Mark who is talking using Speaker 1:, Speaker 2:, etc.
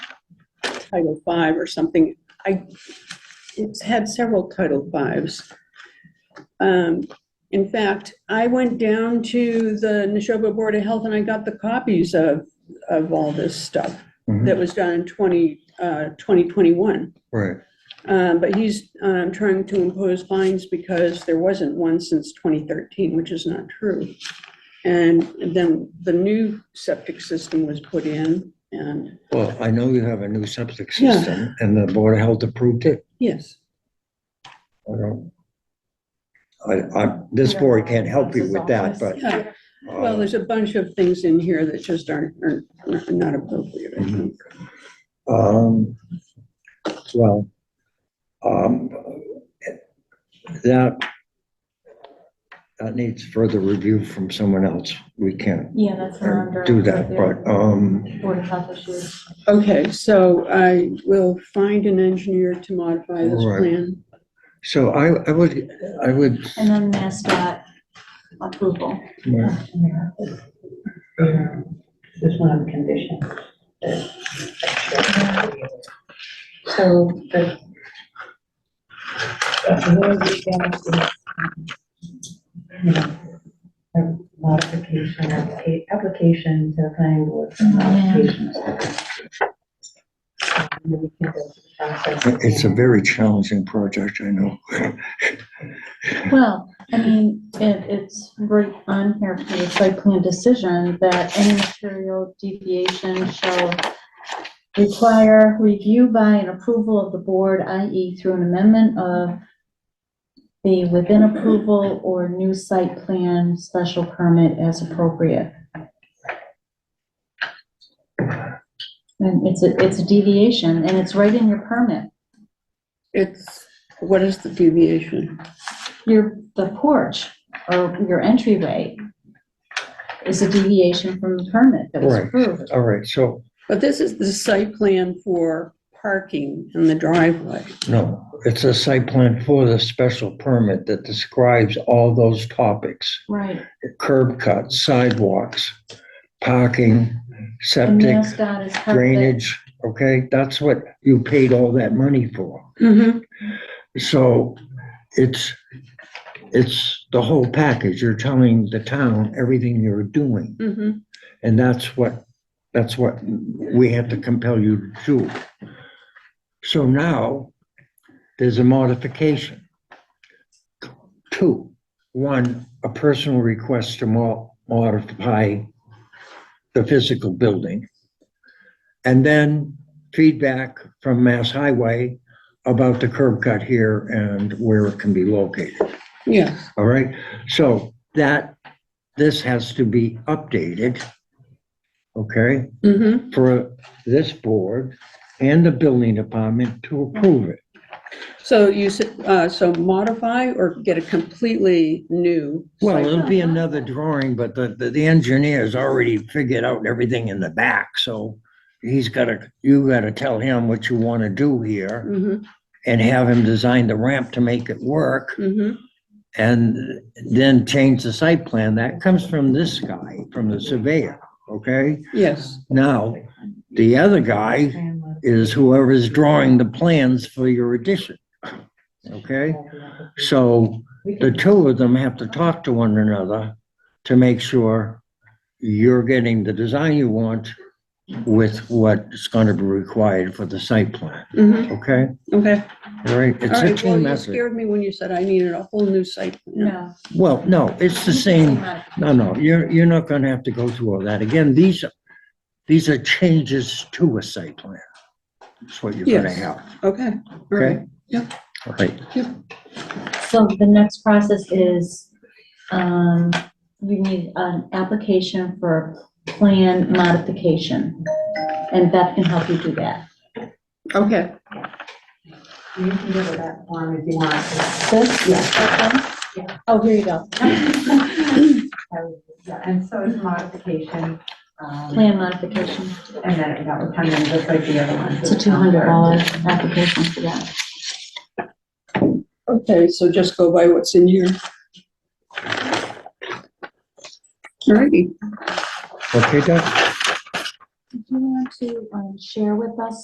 Speaker 1: Title V or something. I, it's had several Title Vs. Um, In fact, I went down to the Neshoba Board of Health and I got the copies of, of all this stuff
Speaker 2: Mhm.
Speaker 1: that was done in 20, uh, 2021.
Speaker 2: Right,
Speaker 1: Um, But he's um, trying to impose fines because there wasn't one since 2013, which is not true. And then the new septic system was put in and,
Speaker 2: well, I know you have a new septic
Speaker 1: Yeah.
Speaker 2: system and the Board of Health approved it.
Speaker 1: yes,
Speaker 2: I don't. I, I, this board can't help you with that, but.
Speaker 1: yeah. Well,
Speaker 2: uh,
Speaker 1: there's a bunch of things in here that just aren't, are not appropriate,
Speaker 2: Mm-hmm.
Speaker 1: I think.
Speaker 2: Um, well, um, that, that needs further review from someone else. We can't
Speaker 3: Yeah, that's what I'm
Speaker 2: uh, do that, but, um,
Speaker 3: Board of Health issues.
Speaker 1: Okay, so I will find an engineer to modify this
Speaker 2: Right.
Speaker 1: plan.
Speaker 2: so I, I would, I would,
Speaker 3: And then MassDOT approval.
Speaker 4: There's one condition. So the. the word is down to, you know, a Modification, applica- application to the planning board. for modifications. And we can go through the process.
Speaker 2: it's a very challenging project, I know.
Speaker 3: Well, I mean, it, it's right on here for the site plan decision that any material deviation shall require review by and approval of the board, i.e. through an amendment of the within approval or new site plan special permit as appropriate. And it's a, it's a deviation and it's right in your permit.
Speaker 1: It's, what is the deviation?
Speaker 3: Your, the porch or your entryway is a deviation from the permit that was
Speaker 2: Right.
Speaker 3: approved.
Speaker 2: All right, so,
Speaker 1: But this is the site plan for parking in the driveway.
Speaker 2: no, it's a site plan for the special permit that describes all those topics.
Speaker 3: Right.
Speaker 2: curb cuts, sidewalks, parking,
Speaker 3: And
Speaker 2: septic,
Speaker 3: MassDOT is covered. it.
Speaker 2: drainage, okay? That's what you paid all that money for.
Speaker 1: Mm-hmm.
Speaker 2: So it's, it's the whole package. You're telling the town everything you're doing.
Speaker 1: Mm-hmm.
Speaker 2: And that's what, that's what we had to compel you to do. So now, there's a modification. Two, one, a personal request to mo- modify the physical building. And then feedback from Mass Highway about the curb cut here and where it can be located.
Speaker 1: Yeah,
Speaker 2: All right, so that, this has to be updated, okay,
Speaker 1: mm-hmm,
Speaker 2: for this board and the building department to approve it.
Speaker 1: so you said, uh, so modify or get a completely new?
Speaker 2: Well,
Speaker 1: site-
Speaker 2: it'll be another drawing, but the, the- the engineer's already figured out everything in the back, so he's gotta, you gotta tell him what you wanna do here
Speaker 1: Mhm,
Speaker 2: and have him design the ramp to make it work
Speaker 1: mhm,
Speaker 2: and then change the site plan. That comes from this guy, from the surveyor, okay?
Speaker 1: yes,
Speaker 2: Now, the other guy
Speaker 4: uh,
Speaker 2: is whoever's drawing the plans for your addition. Okay? So
Speaker 4: We
Speaker 2: the
Speaker 4: can-
Speaker 2: two of them have to talk to one another to make sure you're getting the design you want with what's going to be required for the site plan.
Speaker 1: mhm,
Speaker 2: Okay?
Speaker 1: okay.
Speaker 2: All right? It's
Speaker 1: All
Speaker 2: a
Speaker 1: right, well,
Speaker 2: team
Speaker 1: you
Speaker 2: effort.
Speaker 1: scared me when you said I needed a whole new site. plan.
Speaker 3: No.
Speaker 2: Well, no, it's the same. No, no, you're, you're not gonna have to go through all that. Again, these, these are changes to a site plan. That's what you're gonna
Speaker 1: Yes.
Speaker 2: have,
Speaker 1: Okay, all
Speaker 2: okay?
Speaker 1: right, yeah.
Speaker 2: All right,
Speaker 3: So the next process is, um, you need an application for plan modification. And Beth can help you do that.
Speaker 1: okay,
Speaker 4: You can go to that form if you want.
Speaker 3: This? Okay. Oh, here you go.
Speaker 4: Yeah, And so it's modification. um,
Speaker 3: Plan modification.
Speaker 4: And then that would come in just like the other one.
Speaker 3: It's a two hundred dollar application for that.
Speaker 1: okay, so just go by what's in here. All righty.
Speaker 2: okay, Doug?
Speaker 3: Do you want to, um, share with us